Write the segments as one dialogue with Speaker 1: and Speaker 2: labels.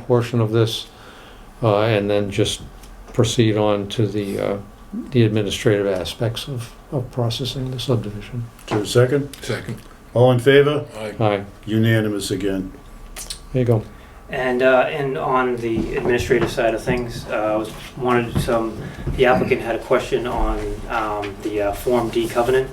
Speaker 1: portion of this, uh, and then just proceed on to the, uh, the administrative aspects of, of processing the subdivision.
Speaker 2: Is there a second?
Speaker 3: Second.
Speaker 2: All in favor?
Speaker 3: Aye.
Speaker 1: Aye,
Speaker 2: Unanimous again.
Speaker 1: there you go.
Speaker 4: And, uh, and on the administrative side of things, uh, I was, wanted some, the applicant had a question on, um, the, uh, Form D covenant.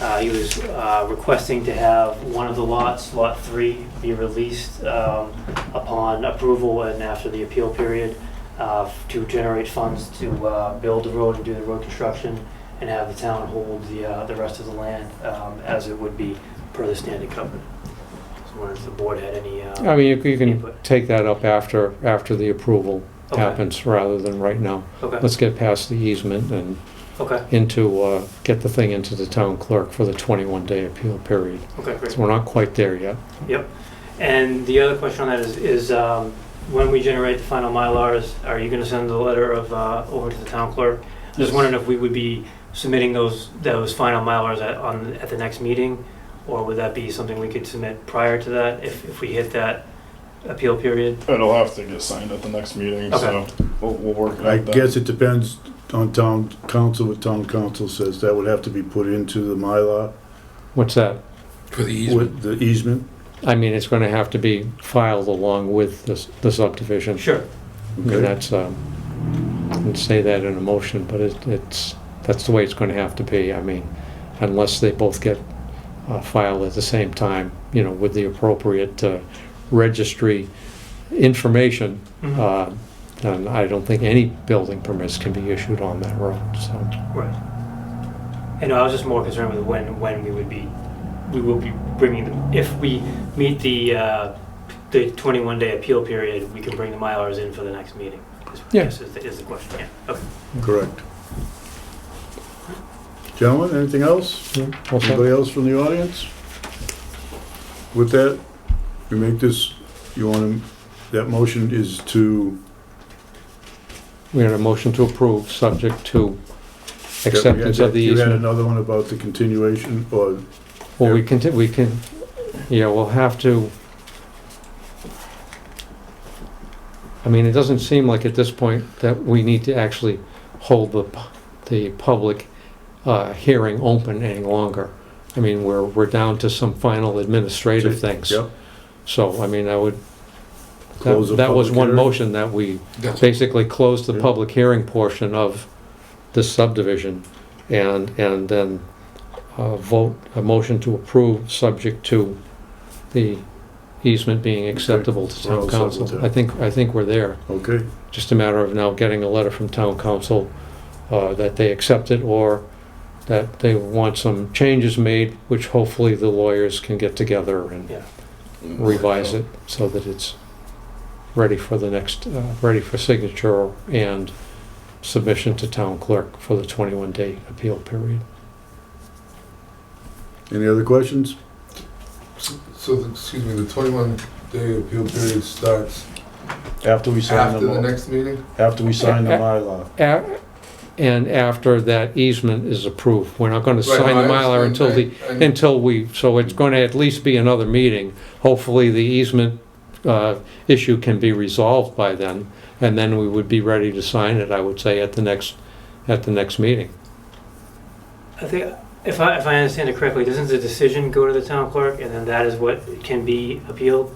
Speaker 4: Uh, he was, uh, requesting to have one of the lots, Lot Three, be released, um, upon approval and after the appeal period, uh, to generate funds to, uh, build the road and do the road construction, and have the town hold the, uh, the rest of the land, um, as it would be per the standing covenant. So I wondered if the board had any, uh.
Speaker 1: I mean, you- you can
Speaker 4: Input.
Speaker 1: take that up after, after the approval
Speaker 4: Okay.
Speaker 1: happens, rather than right now.
Speaker 4: Okay,
Speaker 1: Let's get past the easement and
Speaker 4: okay,
Speaker 1: into, uh, get the thing into the town clerk for the 21-day appeal period.
Speaker 4: okay, great.
Speaker 1: So we're not quite there yet.
Speaker 4: And the other question on that is, is um, when we generate the final Mylars, are you going to send the letter of, uh, over to the town clerk? Just wondering if we would be submitting those, those final Mylars at, on, at the next meeting? Or would that be something we could submit prior to that if, if we hit that appeal period?
Speaker 5: It'll have to get signed at the next meeting, so we'll, we'll work it out.
Speaker 2: I
Speaker 5: then.
Speaker 2: guess it depends on town council, what town council says. That would have to be put into the Mylar
Speaker 1: What's that?
Speaker 3: For the easement.
Speaker 2: with the easement.
Speaker 1: I mean, it's going to have to be filed along with this the subdivision.
Speaker 4: Sure,
Speaker 1: I mean,
Speaker 2: Okay.
Speaker 1: that's, um, I wouldn't say that in a motion, but it- it's, that's the way it's going to have to be. I mean, unless they both get uh, filed at the same time, you know, with the appropriate uh, registry information,
Speaker 4: Mhm.
Speaker 1: uh, then I don't think any building permits can be issued on that road, so.
Speaker 4: right. And I was just more concerned with when, when we would be, we will be bringing them, if we meet the, uh, the 21-day appeal period, we can bring the Mylars in for the next meeting? is-
Speaker 1: Yeah.
Speaker 4: Is the is the question, yeah, okay.
Speaker 2: Correct. Gentlemen, anything else?
Speaker 1: yeah, all set.
Speaker 2: Anybody else from the audience? With that, we make this, you want to, that motion is to,
Speaker 1: We had a motion to approve, subject to acceptance of the
Speaker 2: You had
Speaker 1: easement.
Speaker 2: another one about the continuation or
Speaker 1: Well, we can, t- we can, yeah, we'll have to. I mean, it doesn't seem like at this point that we need to actually hold the, pu- the public uh, hearing open any longer. I mean, we're, we're down to some final administrative things.
Speaker 2: Yep.
Speaker 1: So, I mean, I would,
Speaker 2: Close
Speaker 1: that
Speaker 2: the
Speaker 1: that was
Speaker 2: public
Speaker 1: one
Speaker 2: hearing.
Speaker 1: motion that we
Speaker 3: That's-
Speaker 1: basically closed the
Speaker 2: Yeah.
Speaker 1: public hearing portion of this subdivision and, and then uh, vote, a motion to approve, subject to the easement being acceptable to
Speaker 2: We're all
Speaker 1: town
Speaker 2: set with
Speaker 1: council.
Speaker 2: that.
Speaker 1: I think, I think we're there.
Speaker 2: Okay,
Speaker 1: Just a matter of now getting a letter from town council uh, that they accept it or that they want some changes made, which hopefully the lawyers can get together and revise it so that it's ready for the next, uh, ready for signature and submission to town clerk for the 21-day appeal period.
Speaker 2: any other questions?
Speaker 3: So, the- excuse me, the twenty-one day appeal period starts
Speaker 2: After we sign
Speaker 3: after
Speaker 2: the,
Speaker 3: the
Speaker 2: mo-
Speaker 3: next meeting?
Speaker 2: after we sign the
Speaker 1: Yeah.
Speaker 2: Mylar.
Speaker 1: A- And after that easement is approved, we're not going to sign the
Speaker 3: Right, no, I
Speaker 1: Mylar until
Speaker 3: understand.
Speaker 1: the,
Speaker 3: I- I-
Speaker 1: until we, so it's going to at least be another meeting. Hopefully, the easement uh, issue can be resolved by then, and then we would be ready to sign it, I would say, at the next, at the next meeting.
Speaker 4: I think, if I, if I understand it correctly, doesn't the decision go to the town clerk, and then that is what can be appealed?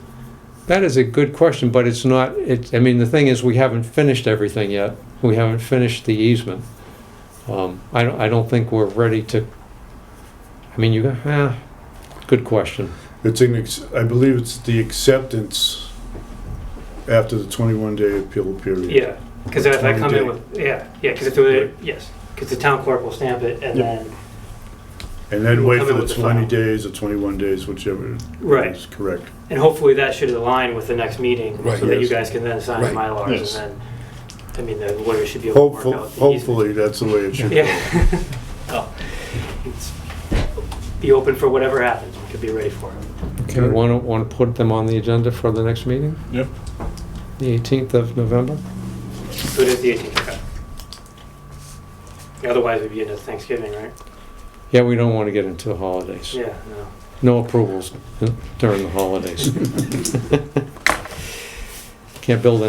Speaker 1: That is a good question, but it's not, it, I mean, the thing is, we haven't finished everything yet. We haven't finished the easement. Um, I don't, I don't think we're ready to, I mean, you, eh, good question.
Speaker 2: It's an, ex- I believe it's the acceptance after the 21-day appeal period.
Speaker 4: Yeah, because if I come
Speaker 2: 20-day.
Speaker 4: in with, yeah, yeah, because if there were, yes, because the town clerk will stamp it, and
Speaker 5: Yep.
Speaker 4: then,
Speaker 2: And then wait for
Speaker 4: Coming
Speaker 2: the
Speaker 4: with the file.
Speaker 2: 20 days or 21 days, whichever
Speaker 4: right,
Speaker 2: is correct.
Speaker 4: and hopefully that should align with the next meeting,
Speaker 3: Right,
Speaker 4: so that you
Speaker 2: yes.
Speaker 4: guys can then sign the
Speaker 3: Right.
Speaker 4: Mylars,
Speaker 5: Yes.
Speaker 4: and then, I mean, the lawyer should be able to
Speaker 2: Hopeful-
Speaker 4: work out the easement.
Speaker 2: Hopefully, that's the way it should go.
Speaker 4: Yeah. Oh, it's- Be open for whatever happens, we could be ready for it.
Speaker 1: Okay, want to, want to put them on the agenda for the next meeting?
Speaker 5: Yep.
Speaker 1: The 18th of November?
Speaker 4: So it is the 18th, okay. Otherwise, we'd be into Thanksgiving, right?
Speaker 1: Yeah, we don't want to get into the holidays. eh,
Speaker 4: Yeah, no.
Speaker 1: No approvals during the holidays. can't build